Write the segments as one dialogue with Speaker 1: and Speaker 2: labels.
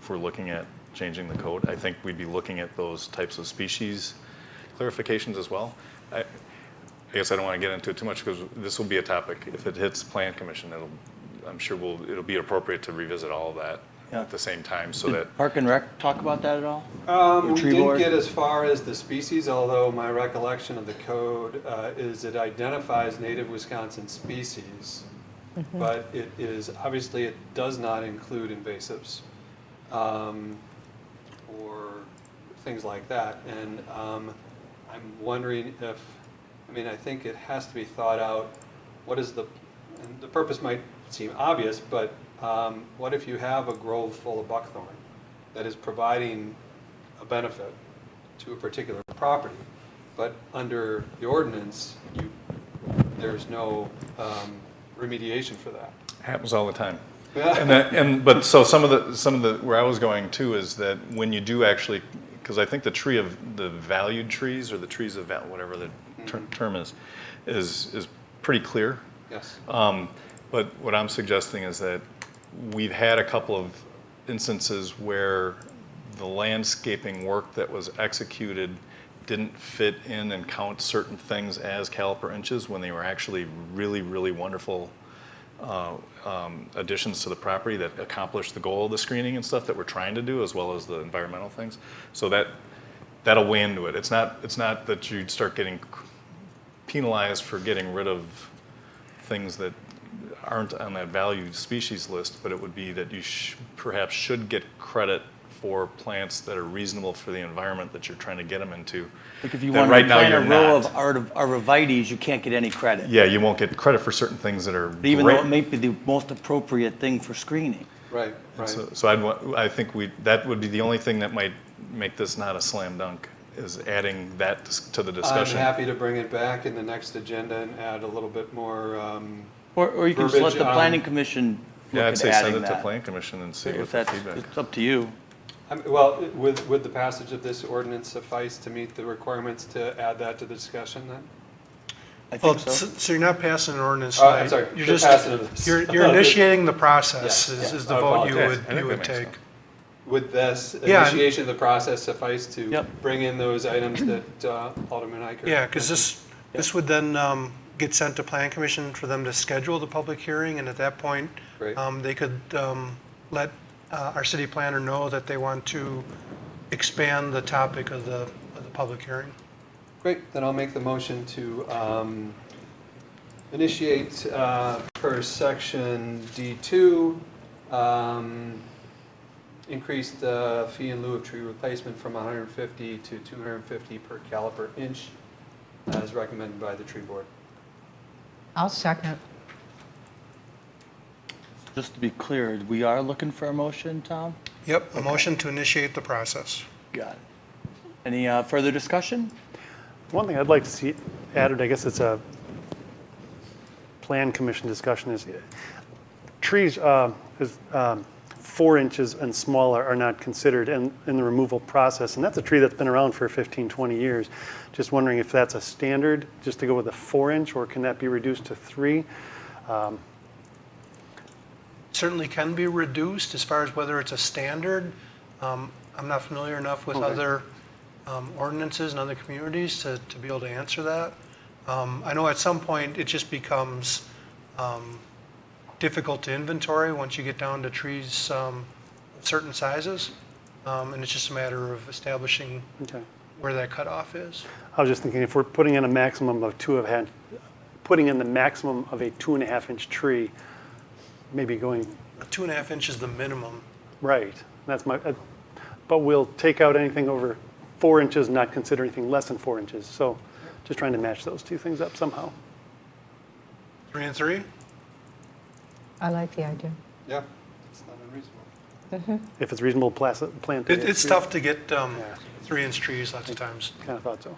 Speaker 1: if we're looking at changing the code, I think we'd be looking at those types of species clarifications as well. I, I guess I don't want to get into it too much because this will be a topic. If it hits plan commission, it'll, I'm sure we'll, it'll be appropriate to revisit all of that
Speaker 2: Yeah.
Speaker 1: at the same time so that
Speaker 2: Did Park and Rec talk about that at all?
Speaker 3: Um, we
Speaker 2: Tree
Speaker 3: didn't
Speaker 2: board?
Speaker 3: get as far as the species, although my recollection of the code uh, is it identifies native Wisconsin species. But it is, obviously, it does not include invasives um, or things like that. And um, I'm wondering if, I mean, I think it has to be thought out, what is the, and the purpose might seem obvious, but um, what if you have a grove full of buckthorn that is providing a benefit to a particular property, but under the ordinance, you, there's no um, remediation for that.
Speaker 1: happens all the time. and that, and but so some of the some of the where I was going too is that when you do actually, because I think the tree of the valued trees or the trees of val- whatever the ter- term is, is is pretty clear.
Speaker 3: Yes.
Speaker 1: Um, but what I'm suggesting is that we've had a couple of instances where the landscaping work that was executed didn't fit in and count certain things as caliper inches when they were actually really, really wonderful uh, um, additions to the property that accomplished the goal of the screening and stuff that we're trying to do, as well as the environmental things. So that that'll weigh into it. It's not it's not that you'd start getting penalized for getting rid of things that aren't on that valued species list, but it would be that you sh- perhaps should get credit for plants that are reasonable for the environment that you're trying to get them into.
Speaker 2: Like if you
Speaker 1: that
Speaker 2: want
Speaker 1: right
Speaker 2: to
Speaker 1: now
Speaker 2: plant a
Speaker 1: you're
Speaker 2: row of
Speaker 1: not.
Speaker 2: artiv- arborvitaes, you can't get any credit.
Speaker 1: Yeah, you won't get credit for certain things that are
Speaker 2: Even though
Speaker 1: great.
Speaker 2: it may be the most appropriate thing for screening.
Speaker 3: Right,
Speaker 1: And
Speaker 3: right.
Speaker 1: So, so I'd, wa- I think we, that would be the only thing that might make this not a slam dunk, is adding that dis- to the
Speaker 3: I'm
Speaker 1: discussion.
Speaker 3: happy to bring it back in the next agenda and add a little bit more, um,
Speaker 2: Or, or you can just let
Speaker 3: Verbiage
Speaker 2: the
Speaker 3: on-
Speaker 2: planning commission
Speaker 1: um, Yeah, I'd
Speaker 2: look at
Speaker 1: say send
Speaker 2: adding
Speaker 1: it to
Speaker 2: that.
Speaker 1: Plan Commission and see what
Speaker 2: If
Speaker 1: the
Speaker 2: that's,
Speaker 1: feedback.
Speaker 2: it's up to you.
Speaker 3: I'm- well, would, would the passage of this ordinance suffice to meet the requirements to add that to the discussion then?
Speaker 2: I
Speaker 4: Well,
Speaker 2: think so.
Speaker 4: so so you're not passing an ordinance
Speaker 3: Oh, I'm
Speaker 4: tonight.
Speaker 3: sorry,
Speaker 4: You're
Speaker 3: the
Speaker 4: just-
Speaker 3: passing of this.
Speaker 4: You're, you're initiating the process
Speaker 3: Yes,
Speaker 4: is,
Speaker 3: yes,
Speaker 4: is the
Speaker 3: I
Speaker 4: vote you
Speaker 1: I
Speaker 3: apologize.
Speaker 4: would,
Speaker 1: think
Speaker 4: you
Speaker 1: that
Speaker 4: would
Speaker 1: makes
Speaker 4: take.
Speaker 1: sense.
Speaker 3: Would this
Speaker 4: Yeah.
Speaker 3: initiation of the process suffice to
Speaker 2: Yep.
Speaker 3: bring in those items that uh, Alderman Eicher?
Speaker 4: Yeah, because this, this would then um, get sent to plan commission for them to schedule the public hearing. And at that point,
Speaker 3: Great.
Speaker 4: um, they could um, let uh, our city planner know that they want to expand the topic of the, of the public hearing.
Speaker 3: Great, then I'll make the motion to um, initiate uh, per section D2, um, increase the fee in lieu of tree replacement from 150 to 250 per caliper inch, as recommended by the tree board.
Speaker 5: I'll second.
Speaker 2: Just to be clear, we are looking for a motion, Tom?
Speaker 4: Yep, a motion to initiate the process.
Speaker 2: Got it. Any uh, further discussion?
Speaker 6: One thing I'd like to see added, I guess it's a plan commission discussion, is trees, uh, is, um, four inches and smaller are not considered in, in the removal process. And that's a tree that's been around for 15, 20 years. Just wondering if that's a standard, just to go with a four inch, or can that be reduced to three?
Speaker 4: certainly can be reduced as far as whether it's a standard. Um, I'm not familiar enough with other um, ordinances and other communities to, to be able to answer that. Um, I know at some point, it just becomes um, difficult to inventory once you get down to trees um, of certain sizes. Um, And it's just a matter of establishing
Speaker 6: Okay.
Speaker 4: where that cutoff is.
Speaker 6: I was just thinking, if we're putting in a maximum of two of hand, putting in the maximum of a two and a half inch tree, maybe going
Speaker 4: Two and a half inches is the minimum.
Speaker 6: Right, that's my, uh, but we'll take out anything over four inches, not consider anything less than four inches. So just trying to match those two things up somehow.
Speaker 4: Three and three?
Speaker 5: I like the idea.
Speaker 3: Yeah, it's not unreasonable.
Speaker 6: If it's reasonable plas- plant.
Speaker 4: It- It's tough to get um, three-inch trees lots of times.
Speaker 6: Kind of thought so.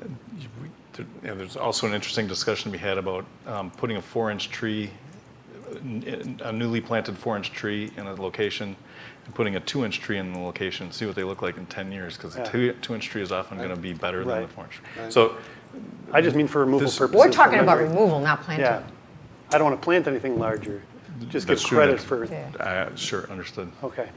Speaker 1: There- Yeah, there's also an interesting discussion to be had about um, putting a four-inch tree, n- n- a newly planted four-inch tree in a location, and putting a two-inch tree in the location, see what they look like in 10 years, because the
Speaker 6: Yeah.
Speaker 1: two- two-inch tree is often going to be better than the
Speaker 6: Right.
Speaker 1: four-inch.
Speaker 3: Right.
Speaker 1: So,
Speaker 6: I just mean for removal
Speaker 1: This-
Speaker 6: purposes.
Speaker 5: We're talking
Speaker 6: for
Speaker 5: about
Speaker 6: memory.
Speaker 5: removal, not
Speaker 6: Yeah.
Speaker 5: planting.
Speaker 6: I don't want to plant anything larger, just give
Speaker 1: That's true,
Speaker 6: credit
Speaker 1: that's-
Speaker 6: for,
Speaker 5: Yeah.
Speaker 1: uh, sure, understood.
Speaker 6: okay.